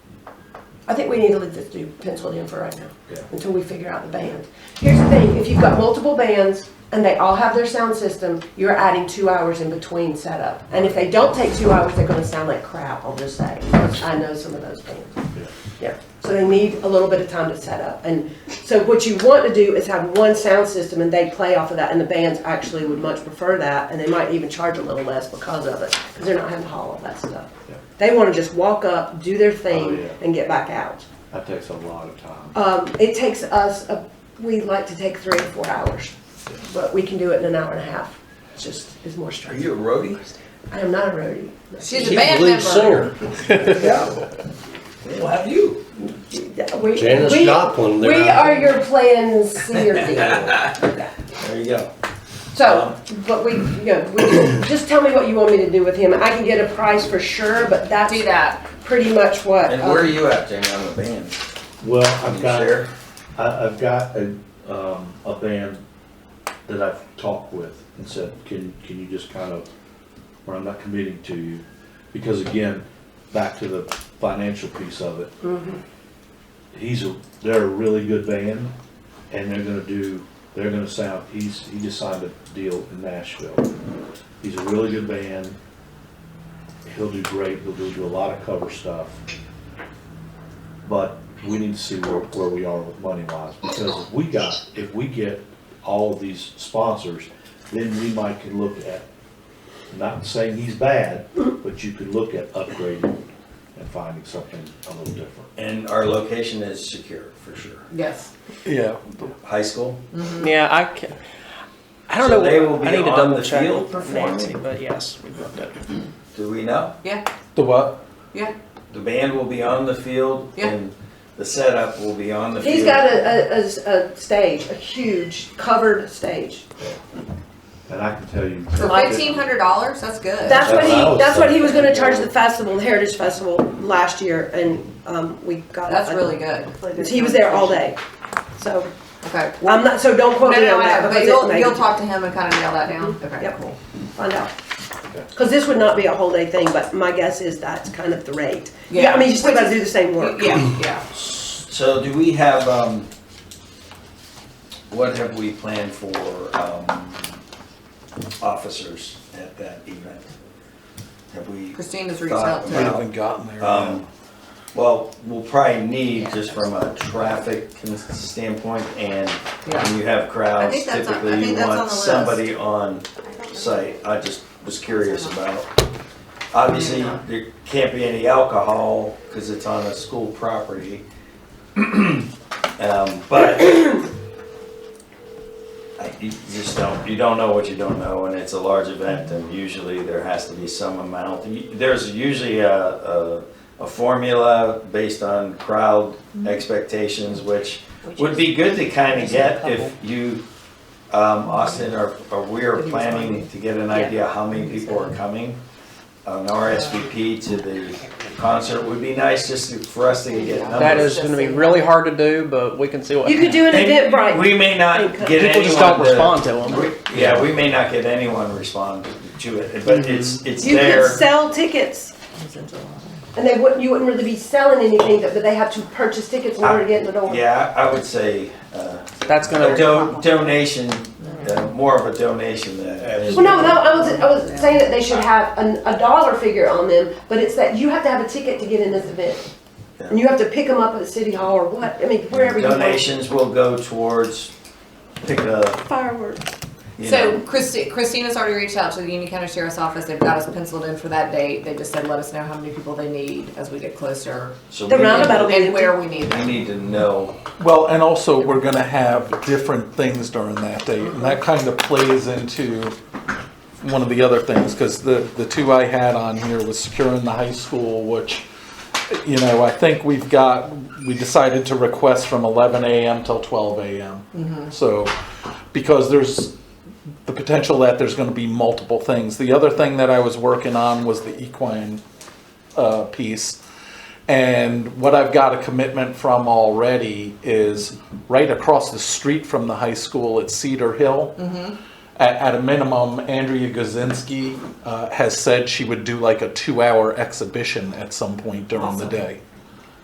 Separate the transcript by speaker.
Speaker 1: I think we need to leave this to penciled in for right now.
Speaker 2: Yeah.
Speaker 1: Until we figure out the band. Here's the thing, if you've got multiple bands and they all have their sound system, you're adding two hours in between setup. And if they don't take two hours, they're gonna sound like crap, I'll just say. I know some of those bands.
Speaker 2: Yeah.
Speaker 1: Yeah, so they need a little bit of time to set up. And so what you want to do is have one sound system and they play off of that. And the bands actually would much prefer that and they might even charge a little less because of it, because they're not having to haul all that stuff.
Speaker 2: Yeah.
Speaker 1: They want to just walk up, do their
Speaker 2: Oh,
Speaker 1: thing,
Speaker 2: yeah.
Speaker 1: and get back out.
Speaker 2: That takes a lot of time.
Speaker 1: Um, it takes us, a- we like to take three or four hours, but we can do it in an hour and a half. It's just, it's more
Speaker 3: Are
Speaker 1: stressful.
Speaker 3: you a roadie?
Speaker 1: I am not a roadie.
Speaker 4: She's a band member.
Speaker 3: Yeah. Well, have you?
Speaker 1: We-
Speaker 5: Janis
Speaker 1: we-
Speaker 5: Joplin, they're
Speaker 1: We
Speaker 5: out.
Speaker 1: are your plan C or D.
Speaker 3: There you go.
Speaker 1: So, but we, you know, we, just tell me what you want me to do with him. I can get a price for sure, but that's
Speaker 4: Do that.
Speaker 1: pretty much what.
Speaker 3: And
Speaker 1: um,
Speaker 3: where are you at, Jamie, on the band?
Speaker 2: Well,
Speaker 3: Can
Speaker 2: I've
Speaker 3: you
Speaker 2: got,
Speaker 3: share?
Speaker 2: I, I've got a, um, a band that I've talked with and said, can, can you just kind of, or I'm not committing to you, because again, back to the financial piece of it.
Speaker 1: um,
Speaker 2: He's a, they're a really good band, and they're gonna do, they're gonna sound, he's, he just signed a deal in Nashville. He's a really good band, he'll do great, he'll do, do a lot of cover stuff. But we need to see where, where we are with money wise, because if we got, if we get all of these sponsors, then we might can look at, not saying he's bad, but you could look at upgrading and finding something a little different.
Speaker 3: And our location is secure, for sure.
Speaker 4: Yes.
Speaker 5: Yeah.
Speaker 3: High school?
Speaker 6: Yeah, I can. I don't
Speaker 3: So
Speaker 6: know.
Speaker 3: they
Speaker 6: what-
Speaker 3: will be
Speaker 6: I need to
Speaker 3: on
Speaker 6: double
Speaker 3: the
Speaker 6: check
Speaker 3: field
Speaker 6: with
Speaker 3: performing?
Speaker 6: Nancy, but yes, we booked it.
Speaker 3: Do we know?
Speaker 4: Yeah.
Speaker 5: The what?
Speaker 4: Yeah.
Speaker 3: The band will be on the field
Speaker 4: Yeah.
Speaker 3: and the setup will be on the field.
Speaker 1: He's got a, a, a, a stage, a huge covered stage.
Speaker 2: And I can tell you.
Speaker 4: For fifteen hundred dollars, that's good.
Speaker 1: That's what
Speaker 2: That's what I
Speaker 1: he,
Speaker 2: was
Speaker 1: that's what he was gonna
Speaker 2: thinking.
Speaker 1: charge the festival, the Heritage Festival last year and, um, we got.
Speaker 4: That's
Speaker 1: a-
Speaker 4: really good.
Speaker 1: He was there all day. So,
Speaker 4: Okay.
Speaker 1: I'm not, so don't
Speaker 4: No,
Speaker 1: quote
Speaker 4: no,
Speaker 1: me on
Speaker 4: no,
Speaker 1: that
Speaker 4: but
Speaker 1: because it
Speaker 4: you'll,
Speaker 1: may
Speaker 4: you'll
Speaker 1: be-
Speaker 4: talk to him and kind of nail that down? Okay,
Speaker 1: Yep.
Speaker 4: cool.
Speaker 1: find out.
Speaker 2: Okay.
Speaker 1: Cause this would not be a whole day thing, but my guess is that's kind of the rate. Yeah,
Speaker 4: Yeah.
Speaker 1: I mean, you still gotta do the same work.
Speaker 4: Yeah, yeah.
Speaker 3: So do we have, um, what have we planned for, um, officers at that event? Have we?
Speaker 4: Christina's reached out
Speaker 5: We
Speaker 3: Thought
Speaker 4: to.
Speaker 3: about-
Speaker 5: haven't gotten there.
Speaker 3: Um, Well, we'll probably need, just from a traffic con- standpoint, and when you have
Speaker 4: I
Speaker 3: crowds,
Speaker 4: think that's on- I
Speaker 3: typically you
Speaker 4: think that's on
Speaker 3: want
Speaker 4: the list.
Speaker 3: somebody on site. I just was curious about. Obviously,
Speaker 4: Yeah.
Speaker 3: there can't be any alcohol, because it's on a school property. Um, But I- you just don't, you don't know what you don't know, and it's a large event, and usually there has to be some amount. There's usually a, a, a formula based on crowd expectations, which would be good to kind of get if you, um, Austin, or, or we are planning to get an idea how many people are coming. An RSVP to the concert would be nice, just to- for us to get numbers.
Speaker 6: That is going to be really hard to do, but we can see what.
Speaker 1: You could do an
Speaker 3: And
Speaker 1: event, right?
Speaker 3: We may not
Speaker 1: People
Speaker 3: get anyone.
Speaker 6: People just don't
Speaker 3: to-
Speaker 6: respond to them.
Speaker 3: we- Yeah, we may not get anyone respond to it, but it's, it's
Speaker 1: You could
Speaker 3: there.
Speaker 1: sell tickets. And they wouldn't, you wouldn't really be selling anything, but but they have to purchase tickets in order to get in the door.
Speaker 3: Yeah, I would say, uh,
Speaker 6: That's going
Speaker 3: a
Speaker 6: to.
Speaker 3: do- donation, uh, more of a donation than.
Speaker 1: Mm-hmm. Well, no, no, I was, I was saying that they should have an, a dollar figure on them, but it's that you have to have a ticket to get in this event. And you have to pick them up at City Hall or what, I mean, wherever you want.
Speaker 3: Donations will go towards pick a,
Speaker 1: Fireworks.
Speaker 3: you
Speaker 4: So
Speaker 3: know,
Speaker 4: Christi- Christina's already reached out to the Union County Sheriff's Office. They've got us penciled in for that date. They just said, let us know how many people they need as we get closer
Speaker 3: so
Speaker 1: The
Speaker 3: we
Speaker 1: roundabout.
Speaker 3: need,
Speaker 1: That'll be
Speaker 4: and
Speaker 1: empty.
Speaker 4: where we need
Speaker 3: we
Speaker 4: them.
Speaker 3: need to know.
Speaker 7: Well, and also, we're gonna have different things during that day, and that kind of plays into one of the other things, because the, the two I had on here was securing the high school, which, you know, I think we've got, we decided to request from eleven AM till twelve AM. So, because there's the potential that there's gonna be multiple things. The other thing that I was working on was the equine, uh, piece. And what I've got a commitment from already is right across the street from the high school at Cedar Hill. At, at a minimum, Andrea Gozinski uh, has said she would do like a two hour exhibition at some point during the day.